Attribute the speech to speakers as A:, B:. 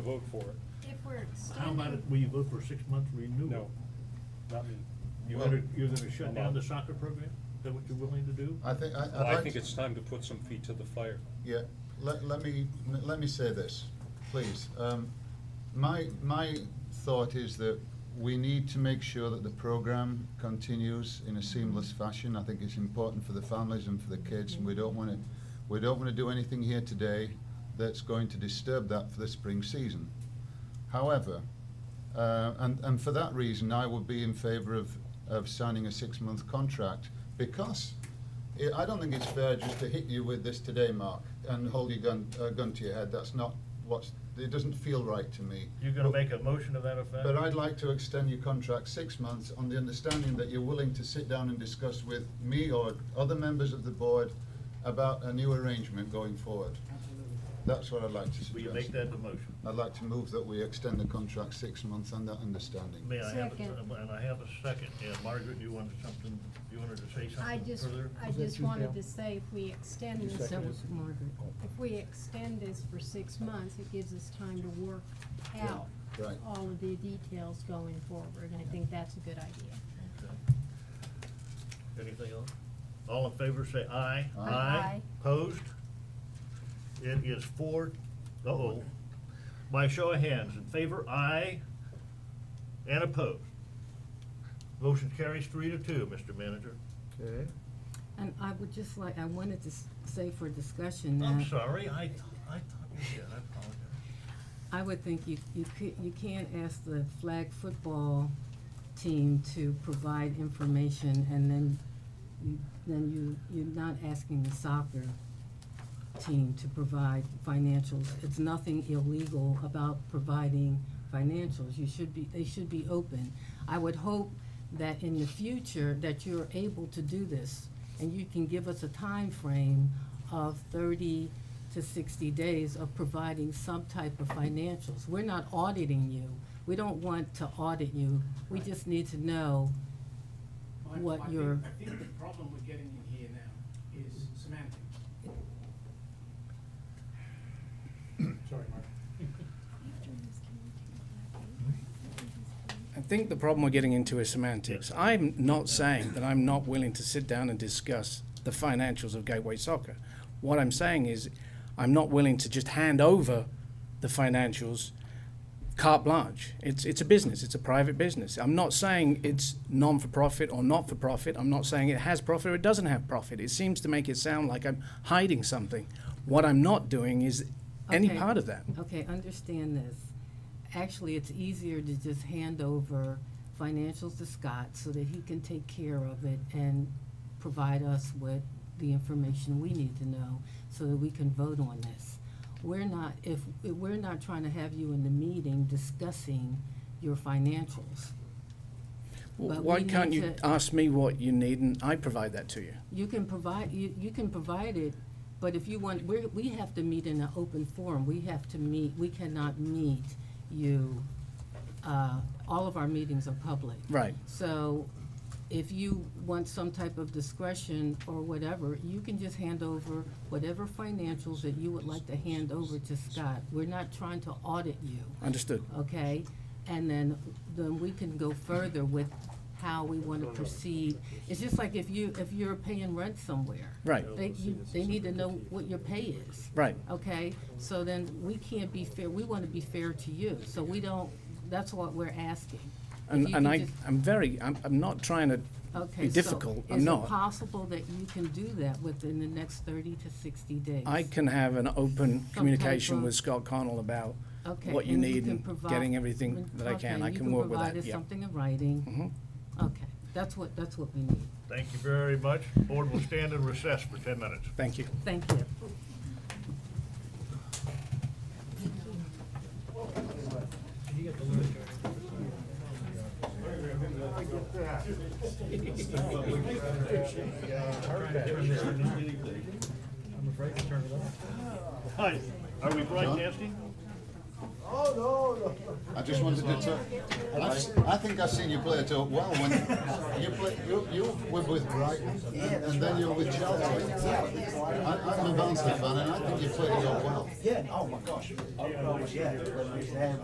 A: to vote for it.
B: If we're
C: How about
B: extending,
C: it, will you vote for a six-month renewal?
A: No, not me.
C: You're
D: Well-
C: gonna, you're gonna shut down the
A: Well-
C: soccer program? Is that what you're willing to do?
D: I think, I, I'd
A: Well, I
D: like
A: think
D: to-
A: it's time to put some feet to the fire.
D: Yeah, let, let me, let me say this, please. Um, my, my thought is that we need to make sure that the program continues in a seamless fashion. I think it's important for the families and for the kids, and we don't wanna, we don't wanna do anything here today that's going to disturb that for the spring season. However, uh, and, and for that reason, I would be in favour of, of signing a six-month contract because I- I don't think it's fair just to hit you with this today, Mark, and hold your gun, uh, gun to your head. That's not what's, it doesn't feel right to me.
C: You're gonna make a motion to that effect?
D: But I'd like to extend your contract six months on the understanding that you're willing to sit down and discuss with me or other members of the board about a new arrangement going forward. That's what I'd like to suggest.
C: Will you make that the motion?
D: I'd like to move that we extend the contract six months on that understanding.
C: May I have, a-
B: Second.
C: and I have a second, and Margaret, you wanted something, you wanted to say something
B: I just,
C: further?
B: I just wanted to say, if we extend this, if we extend this for six months, it gives us time to work out
D: Yeah, right.
B: all of the details going forward, and I think that's a good idea.
C: Okay. Uh, Anything else? All in favor, say aye.
D: Aye.
B: Aye.
C: Opposed? It is four, uh-oh. By show of hands, in favor, aye, and opposed. Motion carries three to two, Mr. Manager.
D: Okay.
E: And I would just like, I wanted to s- say for discussion that.
C: I'm sorry, I, th- I thought you did, I apologize.
E: I would think you, you could, you can ask the flag football team to provide information and then you, then you, you're not asking the soccer team to provide financials. It's nothing illegal about providing financials. You should be, they should be open. I would hope that in the future that you're able to do this and you can give us a time frame of thirty to sixty days of providing some type of financials. We're not auditing you. We don't want to audit you. We just need to know
F: Well, I-
E: what
F: I think-
E: your-
F: I think the problem we're getting in here now is semantics. Sorry, Mark.
G: I think the problem we're getting into is semantics. I'm not saying that I'm not willing to sit down and discuss the financials of Gateway Soccer. What I'm saying is I'm not willing to just hand over the financials carte blanche. It's, it's a business, it's a private business. I'm not saying it's non for profit or not for profit. I'm not saying it has profit or it doesn't have profit. It seems to make it sound like I'm hiding something. What I'm not doing is any
E: Okay.
G: part of that.
E: Okay, understand this. Actually, it's easier to just hand over financials to Scott so that he can take care of it and provide us with the information we need to know so that we can vote on this. We're not, if, if we're not trying to have you in the meeting discussing your financials.
G: W-
E: But
G: Why
E: we
G: can't
E: need
G: you
E: to-
G: ask me what you need and I provide that to you?
E: You can provide, you, you can provide it, but if you want, we're, we have to meet in an open forum. We have to meet, we cannot meet you, uh, all of our meetings are public.
G: Right.
E: So if you want some type of discretion or whatever, you can just hand over whatever financials that you would like to hand over to Scott. We're not trying to audit you
G: Understood.
E: Oh, okay? And then, then we can go further with how we wanna proceed. It's just like if you, if you're paying rent somewhere.
G: Right.
E: They, you, they need to know what your pay is.
G: Right.
E: Okay, so then we can't be fair, we wanna be fair to you, so we don't, that's what we're asking. If
G: And,
E: you
G: and
E: can
G: I,
E: just-
G: I'm very, I'm, I'm not trying to
E: Okay,
G: be
E: so
G: difficult. I'm
E: Is it
G: not.
E: possible that you can do that within the next thirty to sixty days?
G: I can have an open communication
E: of-
G: with Scott Connell about
E: Okay,
G: what you
E: and you
G: need
E: can
G: and
E: provide-
G: getting everything that I
E: Okay,
G: can. I
E: you
G: can work with
E: provide
G: that,
E: us
G: yeah. Mm-hmm.
E: Something in writing? Okay, that's what, that's what we need.
C: Thank you very much. Board will stand in recess for ten minutes.
G: Thank you.
E: Thank you.
C: Hi, are we broadcasting?
D: I I just wanted to talk. I've- I think I've seen you play it out well when you play, you, you were with Brighton and and then you were with Chelsea. I, I'm a Barnsley fan and I think you played it out well.
H: Yeah, oh my gosh. I, I was, yeah, when we used to have